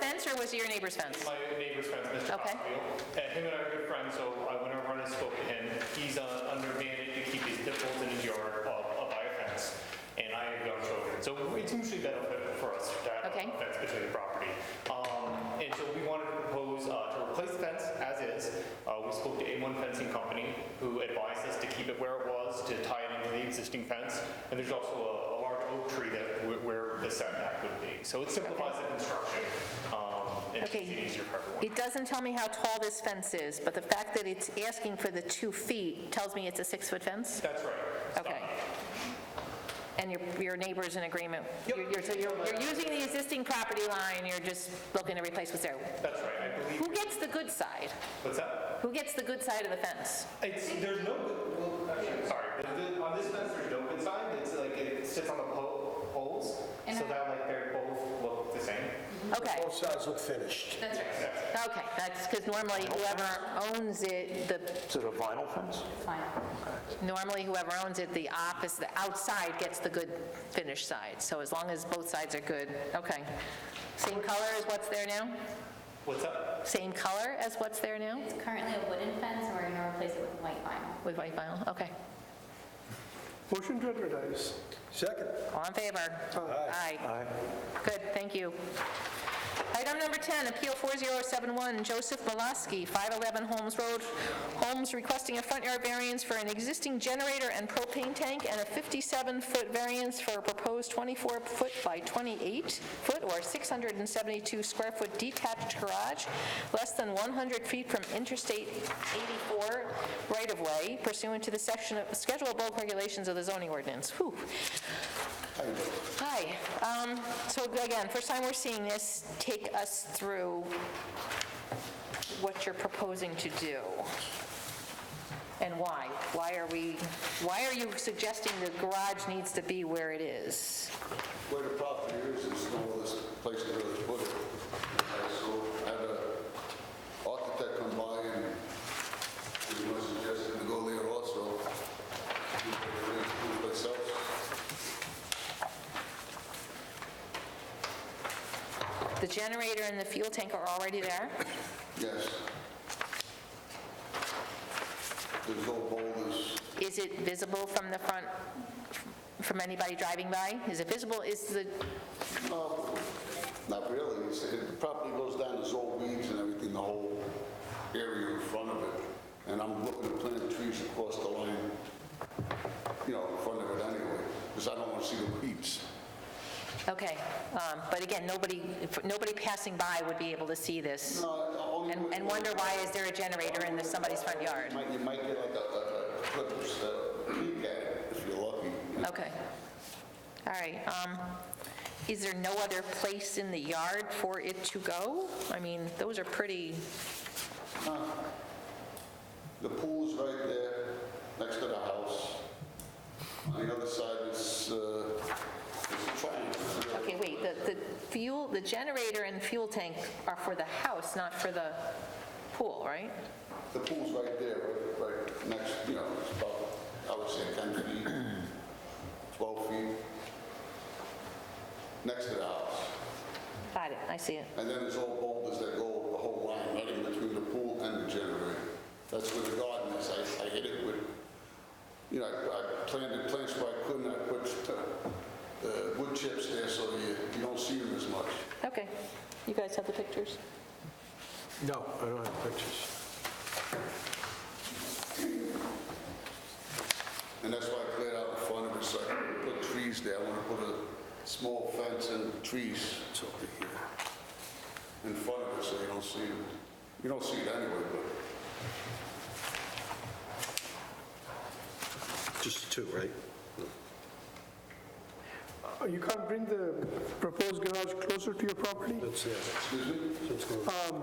fence or was it your neighbor's fence? My neighbor's friend, Mr. Okay. Hospital. And him and I are good friends, so I went over and I spoke to him. He's uh, under mandate to keep his nipples in his yard up up by a fence, and I have young children. So it's mutually beneficial for us to have Okay. a fence between the property. Um, And so we wanted to propose uh, to replace the fence as is. Uh, We spoke to A1 Fencing Company, who advised us to keep it where it was, to tie it into the existing fence. And there's also a a large oak tree that, wh- where the setback would be. So it simplifies the construction, um, and makes Okay. it easier for everyone. It doesn't tell me how tall this fence is, but the fact that it's asking for the two feet tells me it's a six-foot fence? That's right. Okay. And your, your neighbor's in agreement? You're- You're, so you're- you're using the existing property line, you're just looking to replace what's there. That's right, I believe. Who gets the good side? What's that? Who gets the good side of the fence? It's, there's no, well, actually, sorry, The- the- on this fence, there's no good side, it's like, it sits on the po- poles, so that like they're both look the same. Okay, Both sides look finished. That's right. okay, that's, because normally whoever owns it, the, Is it a vinyl fence? normally whoever owns it, the opposite, the outside gets the good finished side. So as long as both sides are good, okay. Same color as what's there now? What's that? Same color as what's there now? It's currently a wooden fence, and we're going to replace it with white vinyl. With white vinyl, okay. Motion to advertise. Second, All in favor? Aye. Good, thank you. Item number 10, Appeal 4071, Joseph Molaski, 511 Holmes Road, Holmes requesting a front yard variance for an existing generator and propane tank and a 57-foot variance for a proposed 24-foot by 28-foot or 672-square-foot detached garage, less than 100 feet from Interstate 84 right-of-way pursuant to the section of, Schedule of Bulk Regulations of the zoning ordinance. Whew. Hi, um, so again, first time we're seeing this, take us through what you're proposing to do and why. Why are we, why are you suggesting the garage needs to be where it is? Where the property is, there's no other place to really put it. And So I had an architect come by and he was suggesting to go there also. Do it myself. The generator and the fuel tank are already there? Yes. There's no boulders. Is it visible from the front, from anybody driving by? Is it visible? Is the, No, not really. It's- it- The property goes down, there's old weeds and everything, the whole area in front of it. And I'm looking to plant trees across the line, you know, in front of it anyway, because I don't want to see the weeds. okay, um, but again, nobody, nobody passing by would be able to see this and and wonder why is there a generator in the- somebody's front yard? You might- You might get like a- like a clippers, uh, peek at it if you're lucky. Okay. All right. um, Is there no other place in the yard for it to go? I mean, those are pretty, The pool's right there, next to the house. On the other side is, uh, is a triangle. okay, wait, the the fuel, the generator and fuel tank are for the house, not for the pool, right? The pool's right there, right- right next, you know, it's about, I would say 10 feet, 12 feet, next to the house. Got it, I see it. And then there's all boulders that go the whole line, right in between the pool and the generator. That's where the garden is, I, I hit it with, you know, I I planted plants where I couldn't, I put uh, uh, wood chips there so you, you don't see them as much. Okay. You guys have the pictures? no, I don't have pictures. And that's why I cleared out in front of it, so I can put trees there. I want to put a small fence and trees over here in front of it, so you don't see it. You don't see it anyway, but Just two, right? Uh, You can't bring the proposed garage closer to your property? Um, That's it. excuse me? So it's going-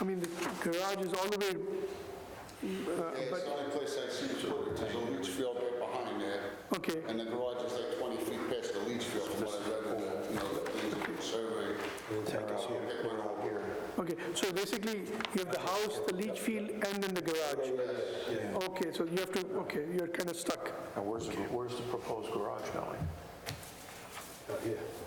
I mean, the garage is all the way, Yeah, it's the only place I see it. There's a leach field right behind there. okay, And the garage is like 20 feet past the leach field, from what I read in the, you know, the things in the survey. Take Uh, us here. Pick one up here. okay. So basically, you have the house, the leach field, and then the garage? Okay, so you have to, okay, you're kind of stuck. And where's, the- where's the proposed garage going? Here.